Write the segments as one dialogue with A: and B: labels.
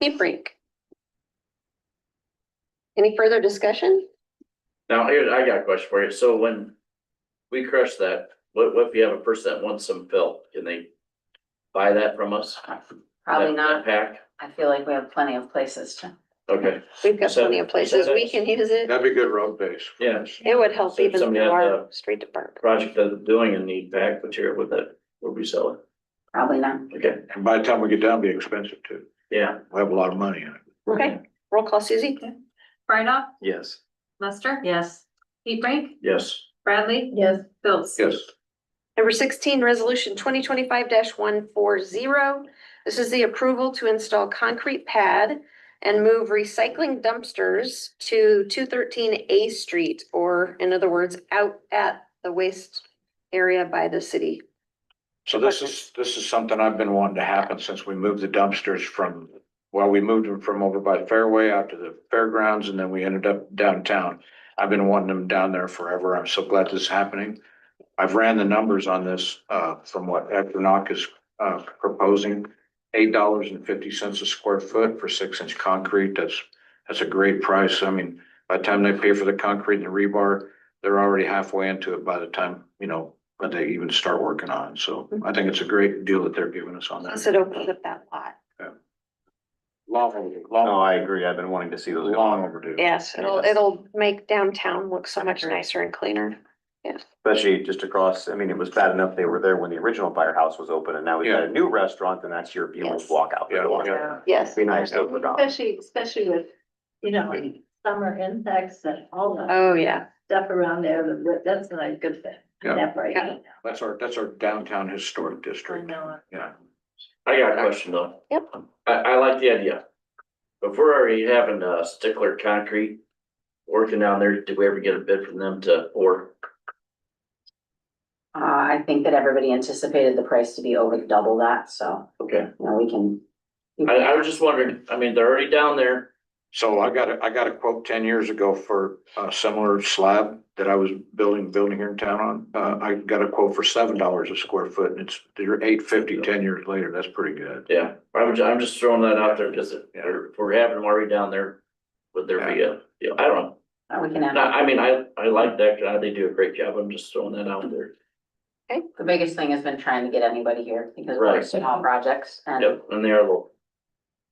A: Leaf Rink. Any further discussion?
B: Now, here, I got a question for you. So when we crush that, what, what if you have a person that wants some fill? Can they buy that from us?
C: Probably
B: That-
C: not.
B: that Pack?
C: I feel like we have plenty of places to.
B: Okay,
A: We've got
B: So-
A: plenty of places
B: so
A: we can use it.
D: That'd be good road base.
B: yeah.
A: It would help
B: So if
A: even
B: somebody had
A: our
B: the
A: street department.
B: Project that's doing a need pack material with that, would we sell it?
C: Probably not.
B: Okay,
D: And by the time we get down, it'd be expensive too.
B: yeah,
D: We have a lot of money in it.
A: Okay, roll call Susie.
E: Brightoff,
B: yes,
E: Lester,
C: Yes.
E: Heat Brink,
B: yes.
E: Bradley,
C: Yes.
E: Phillips.
D: Yes,
A: Number sixteen, resolution twenty twenty-five one four zero. This is the approval to install concrete pad and move recycling dumpsters to two thirteen A Street, or in other words, out at the waste area by the city.
D: so this is, this is something I've been wanting to happen since we moved the dumpsters from, well, we moved them from over by the Fairway out to the fairgrounds and then we ended up downtown. I've been wanting them down there forever. I'm so glad this is happening. I've ran the numbers on this, uh, from what Equinox is, uh, proposing. Eight dollars and fifty cents a square foot for six inch concrete. That's, that's a great price. I mean, by the time they pay for the concrete and the rebar, they're already halfway into it by the time, you know, when they even start working on. it. So
F: Mm-hmm.
D: I think it's a great deal that they're giving us on that.
A: Plus it opens up that lot.
D: Long overdue, long.
G: No, Oh, I agree. I've been wanting to see those.
D: Long overdue.
A: Yes, it'll,
G: Yes.
A: it'll make downtown look so much nicer and cleaner.
G: Especially just across, I mean, it was bad enough they were there when the original firehouse was open and now we've got a new restaurant and that's your, you almost
A: Yes.
G: walk out the
D: Yeah,
G: door.
D: yeah.
A: Yes.
G: Be nice to open up.
F: Especially, especially with, you know, summer insects and all the
A: Oh, yeah.
F: stuff around there, that- that's not a good thing.
D: Yeah.
F: That right now.
D: That's our, that's our downtown historic
F: I
D: district.
F: know.
D: Yeah.
B: I got a question though.
A: Yep.
B: I, I like the idea. If we're already having uh stickler concrete working down there, did we ever get a bid from them to, or,
C: Uh, I think that everybody anticipated the price to be over double that, so,
B: okay?
C: you know, we can.
B: I, I was just wondering, I mean, they're already down there,
D: So I got a, I got a quote ten years ago for a similar slab that I was building, building here in town on. Uh, I got a quote for seven dollars a square foot and it's, they're eight fifty, ten years later. That's pretty good.
B: yeah, I'm, ju- I'm just throwing that out there, cause if we're- if we're having them already down there, would there be a, yeah, I don't know.
C: Uh, We can
B: No,
C: have,
B: I mean, I, I like that, guy. they do a great job, I'm just throwing that out there.
C: the biggest thing has been trying to get anybody here because we're
B: Right.
C: small projects and you
B: Yep, and they are a little,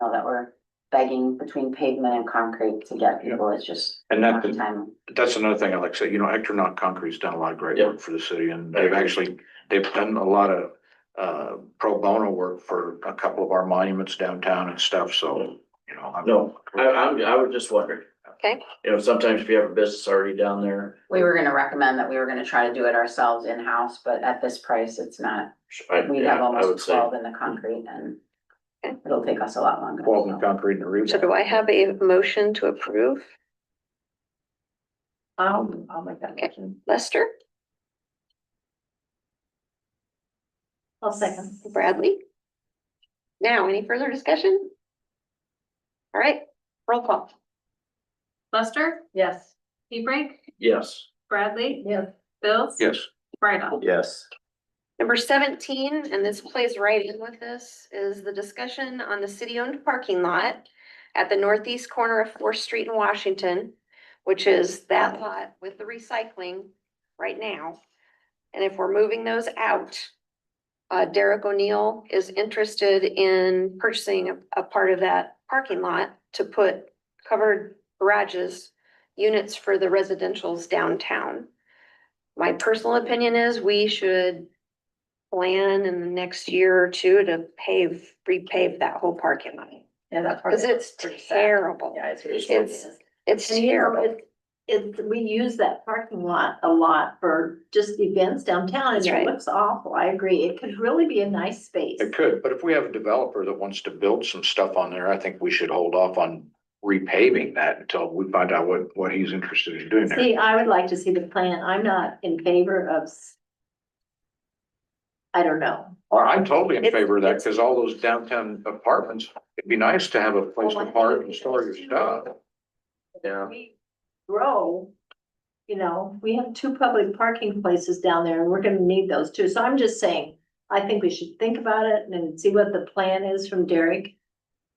C: know that we're begging between pavement and concrete to get people, it's just.
D: And
C: not
D: that-
C: time.
D: That's another thing I like to say, you know, Ectronaut Concrete's done a lot of great work for the city and they've
B: Yeah.
D: actually, they've done a lot of uh, pro bono work for a couple of our monuments downtown and stuff, so, you know. I'm-
B: no, I, I'm, I was just wondering.
A: Okay.
B: You know, sometimes if you have a business already down there,
C: We were gonna recommend that we were gonna try to do it ourselves in-house, but at this price, it's not,
B: I,
C: we
B: yeah,
C: have
B: I would
C: almost
B: say,
C: twelve in the concrete and
A: Okay.
C: it'll take us a lot longer.
D: Twelve
C: so.
D: and concrete and a roof.
A: So do I have a motion to approve?
F: I'll, I'll make that motion.
A: Lester,
F: I'll second.
A: Bradley? Now, any further discussion? All right, roll call.
E: Lester,
F: Yes.
E: Heat Brink,
B: yes.
E: Bradley,
F: Yes.
E: Phillips.
D: Yes,
E: Brightoff.
G: Yes.
A: Number seventeen, and this plays right in with this, is the discussion on the city-owned parking lot at the northeast corner of Fourth Street in Washington, which is that lot with the recycling right now. And if we're moving those out, uh, Derek O'Neill is interested in purchasing a, a part of that parking lot to put covered garages, units for the residential's downtown. My personal opinion is we should plan in the next year or two to pave, repave that whole parking lot.
F: Yeah, that part.
A: Cause it's
F: pretty sad.
A: terrible.
F: Yeah, it's. really sad.
A: It's, it's
F: And you know,
A: terrible.
F: it- It, we use that parking lot a lot for just events downtown and
A: That's
F: it
A: right.
F: looks awful. I agree. It could really be a nice space.
D: it could, but if we have a developer that wants to build some stuff on there, I think we should hold off on repaving that until we find out what, what he's interested in doing there.
F: See, I would like to see the plan. I'm not in favor of. s- I don't know.
D: Or I'm totally in
A: It's-
D: favor of that,
A: it's-
D: because all those downtown apartments, it'd be nice to have a place
F: Well, I
D: to
F: think
D: park
F: it'd
D: and
F: be
D: store your
F: nice to-
D: stuff.
B: Yeah.
F: We Grow, you know, we have two public parking places down there and we're gonna need those too. So I'm just saying, I think we should think about it and then see what the plan is from Derek.